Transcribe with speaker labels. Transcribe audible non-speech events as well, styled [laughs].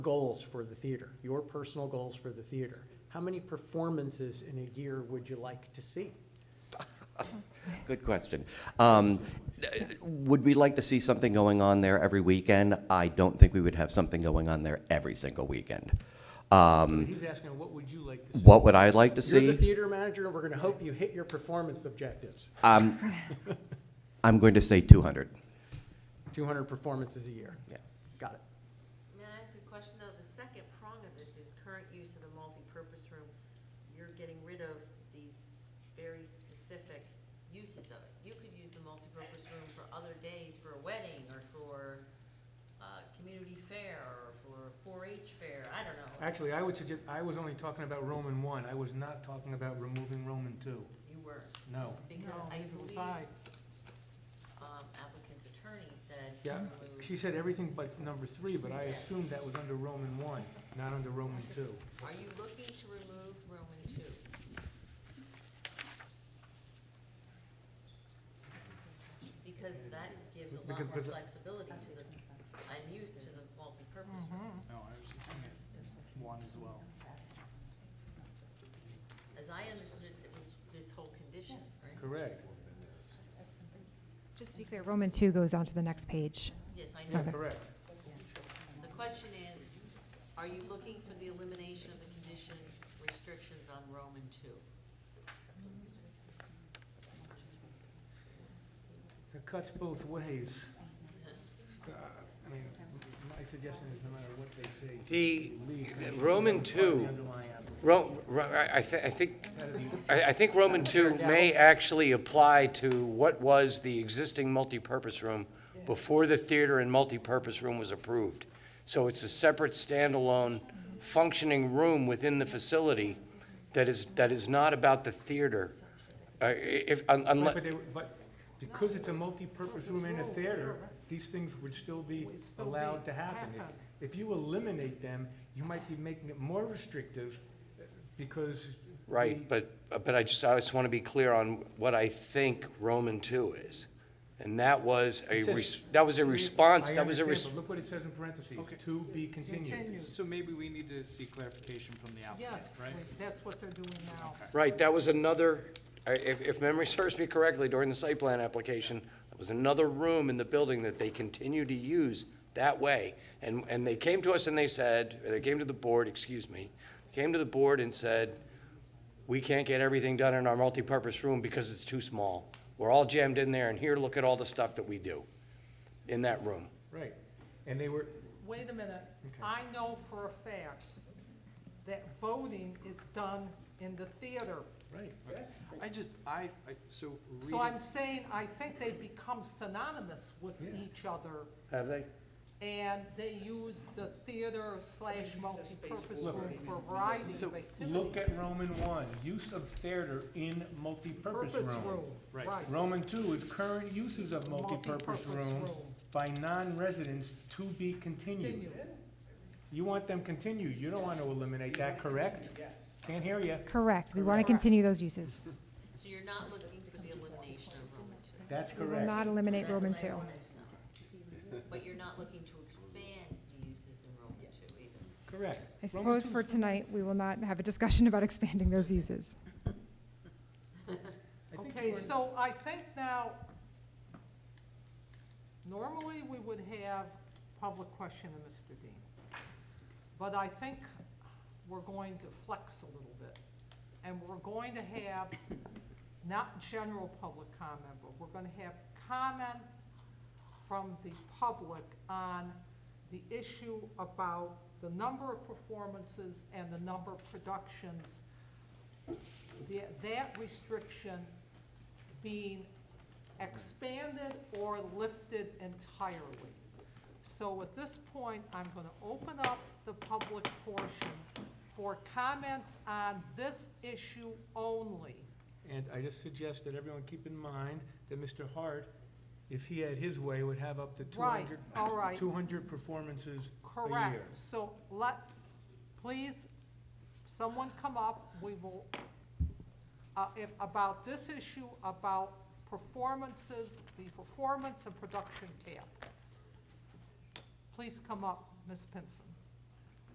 Speaker 1: goals for the theater, your personal goals for the theater. How many performances in a year would you like to see?
Speaker 2: Good question. Um, Would we like to see something going on there every weekend? I don't think we would have something going on there every single weekend. Um,
Speaker 1: He's asking, what would you like to see?
Speaker 2: What would I like to
Speaker 1: You're the
Speaker 2: see?
Speaker 1: theater manager, and we're gonna hope you hit your performance objectives.
Speaker 2: Um, I'm going to say 200.
Speaker 1: Two hundred performances a year.
Speaker 2: Yeah.
Speaker 1: Got it.
Speaker 3: May I ask you a question, though? The second prong of this is current use of the multipurpose room. You're getting rid of these s- very specific uses of it. You could use the multipurpose room for other days, for a wedding, or for, uh, community fair, or for four-H fair, I don't know.
Speaker 4: Actually, I would suggest, I was only talking about Roman one, I was not talking about removing Roman two,
Speaker 3: You were,
Speaker 4: no.
Speaker 3: because I believe, um, applicant's attorney said.
Speaker 4: Yeah,
Speaker 3: remove-
Speaker 4: She said everything but number three, but I assumed that was under Roman one, not under Roman two.
Speaker 3: Are you looking to remove Roman two? Because that gives a lot
Speaker 4: Because-
Speaker 3: more
Speaker 4: because-
Speaker 3: flexibility to the, and use to the multipurpose room.
Speaker 4: No, I was just thinking one as well.
Speaker 3: As I understood, it was this whole condition, right?
Speaker 4: Correct,
Speaker 5: Just to be clear, Roman 2 goes on to the next page.
Speaker 3: Yes, I
Speaker 4: yeah,
Speaker 3: know.
Speaker 5: Okay.
Speaker 4: correct.
Speaker 3: The question is, are you looking for the elimination of the condition restrictions on Roman two?
Speaker 4: It cuts both ways. Uh, I mean, my suggestion is no matter what they say.
Speaker 6: The-
Speaker 4: leave
Speaker 6: the Roman two-
Speaker 4: The underlying application.
Speaker 6: Ro, Ro- I, I thi- I think, I, I think Roman two may actually apply to what was the existing multipurpose room before the theater and multipurpose room was approved. So it's a separate standalone functioning room within the facility that is, that is not about the theater. Uh, i- if, un-
Speaker 4: Right,
Speaker 6: unless,
Speaker 4: But they, were- but because it's a multipurpose room and a theater, these things would still be allowed to happen. If- If you eliminate them, you might be making it more restrictive uh, because. Mm-hmm.
Speaker 6: right, but, but I just, I just want to be clear on what I think Roman two is. And that was a,
Speaker 4: It says-
Speaker 6: res- that was a response, that was a
Speaker 4: mm-hmm. I
Speaker 6: response.
Speaker 4: understand, but look what it says in parentheses,
Speaker 7: Okay.
Speaker 4: to be continued.
Speaker 7: So maybe we need to see clarification from the applicant,
Speaker 8: Yes,
Speaker 7: right?
Speaker 8: that's what they're doing now.
Speaker 6: Right, that was another, I- if, if memory [laughs] serves me correctly, during the site plan application, there was another room in the building that they continue to use that way. And, and they came to us and they said, they came to the board, excuse me, came to the board and said, we can't get everything done in our multipurpose room because it's too small. We're all jammed in there and here, look at all the stuff that we do in that room.
Speaker 4: Right, and they were,
Speaker 8: Wait a minute,
Speaker 4: Okay.
Speaker 8: I know for a fact that voting is done in the theater.
Speaker 4: right,
Speaker 7: I just, I, I- so
Speaker 8: So I'm
Speaker 7: reading,
Speaker 8: saying, I think they've become synonymous with
Speaker 4: Yeah.
Speaker 8: each other,
Speaker 6: Have they?
Speaker 8: and they use the theater slash multipurpose
Speaker 4: Look.
Speaker 8: room for a variety of
Speaker 4: look
Speaker 8: activities.
Speaker 4: at Roman one, use of theater in multipurpose
Speaker 8: Purpose
Speaker 4: room.
Speaker 8: room,
Speaker 7: Right.
Speaker 8: right.
Speaker 4: Roman two is current uses of multipurpose
Speaker 8: Multipurpose
Speaker 4: room by non-residents to be continued.
Speaker 8: Continue.
Speaker 4: You want them continued, you don't want to eliminate that, correct? Yes. Can't hear you,
Speaker 5: Correct. We want to continue those uses.
Speaker 3: So you're not looking for the elimination of Roman two?
Speaker 4: that's
Speaker 5: We will
Speaker 4: correct.
Speaker 5: not eliminate
Speaker 3: That's
Speaker 5: Roman
Speaker 3: what I
Speaker 5: 2.
Speaker 3: wanted to know. But you're not looking to expand the uses in Roman two either?
Speaker 4: Correct.
Speaker 5: I
Speaker 4: Roman
Speaker 5: suppose
Speaker 4: two-
Speaker 5: for tonight, we will not have a discussion [laughs] about expanding those uses.
Speaker 4: I think you
Speaker 8: Okay,
Speaker 4: were-
Speaker 8: so I think now, normally we would have public question of Mr. Dean. But I think we're going to flex a little bit. And we're going to have not general public comment, but we're gonna have comment from the public on the issue about the number of performances and the number of productions the- that restriction being expanded or lifted entirely. So at this point, I'm going to open up the public portion for comments on this issue only.
Speaker 4: And I just suggest that everyone keep in mind that Mr. Hart, if he had his way, would have up to two
Speaker 8: Right,
Speaker 4: hundred.
Speaker 8: all right.
Speaker 4: Two hundred performances a year.
Speaker 8: Correct. So let, please, someone come up, we will, uh, if, about this issue, about performances, the performance and production cap. Please come up, Ms. Pinson.